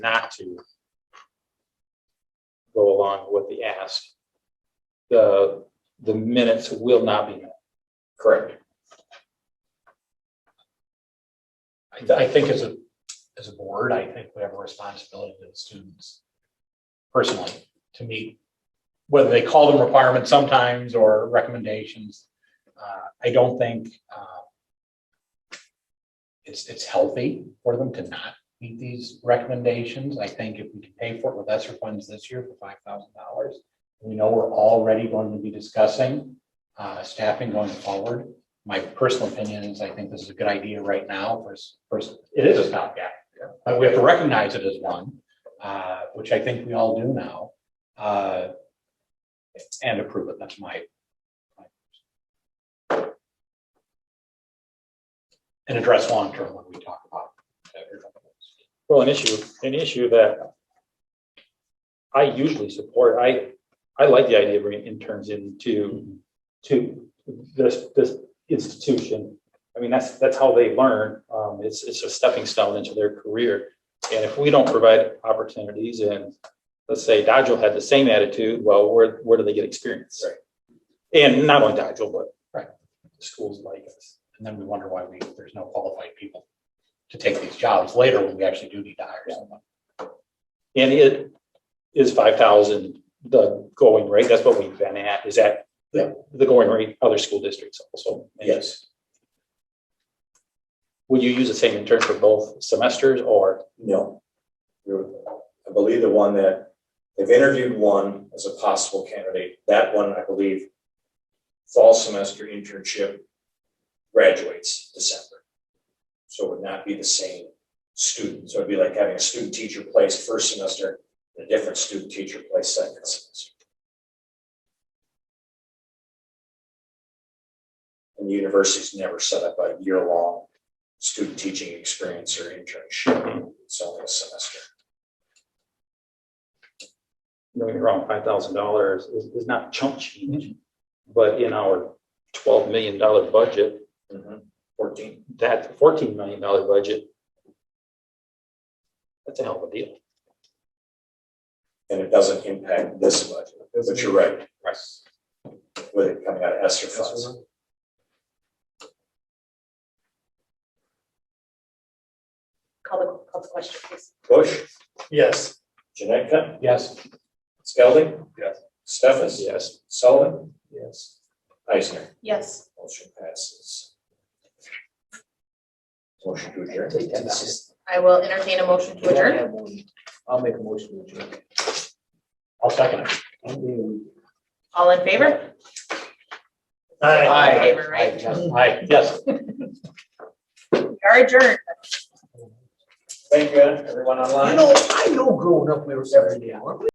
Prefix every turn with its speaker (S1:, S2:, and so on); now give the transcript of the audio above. S1: not to go along with the ask, the, the minutes will not be met. Correct.
S2: I, th- I think as a, as a board, I think we have a responsibility to the students personally to meet, whether they call them requirements sometimes or recommendations. Uh, I don't think, uh, it's, it's healthy for them to not meet these recommendations. I think if we can pay for it with lesser funds this year for five thousand dollars, we know we're already going to be discussing, uh, staffing going forward my personal opinion is I think this is a good idea right now for, s- for, s- it is a stopgap. But we have to recognize it as one, uh, which I think we all do now, uh, and approve it. That's my. my- And address long term when we talk about. it.
S1: Well, an issue, an issue that I usually support, I, I like the idea of bringing interns into, to this, this institution. I mean, that's, that's how they learn. Um, it's, it's a stepping stone into their career. And if we don't provide opportunities and let's say Dodger had the same attitude, well, where, where do they get experience? And not only Dodger, but
S2: Right.
S1: schools like us.
S2: And then we wonder why we, there's no qualified people to take these jobs later when we actually do need to hire someone.
S1: And it is five thousand, the going rate, that's what we've been at, is that the the going rate, other school districts also.
S3: Yes,
S1: Would you use the same intern for both semesters or?
S3: no. You're- I believe the one that, they've interviewed one as a possible candidate, that one, I believe, fall semester internship graduates December. So it would not be the same student, so it'd be like having a student teacher place first semester, and a different student teacher place second semester. And the university's never set up a year-long student teaching experience or internship, it's only a semester.
S1: don't get me wrong, five thousand dollars is, is not chump change.
S3: Mm-hmm.
S1: But in our twelve million dollar budget,
S3: Fourteen,
S1: that fourteen million dollar budget, that's a hell of a deal.
S3: and it doesn't impact this budget, but you're right, with it coming out of ESSER funds.
S4: Call the, call the question, please.
S3: Bush,
S2: Yes.
S3: Janetka,
S2: Yes.
S3: Skelding?
S1: Yes.
S3: Stefas?
S1: Yes.
S3: Sullivan? Yes. Eisner,
S4: Yes.
S3: motion passes. Motion to adjourn.
S4: I will entertain a motion to adjourn.
S5: I'll make a motion to adjourn.
S2: I'll second it.
S4: All in favor?
S2: Aye.
S4: Favor, right?
S2: Aye, yes.
S4: We are adjourned.
S3: Thank you, everyone online.
S5: You know, I know growing up, we were seventy, weren't we?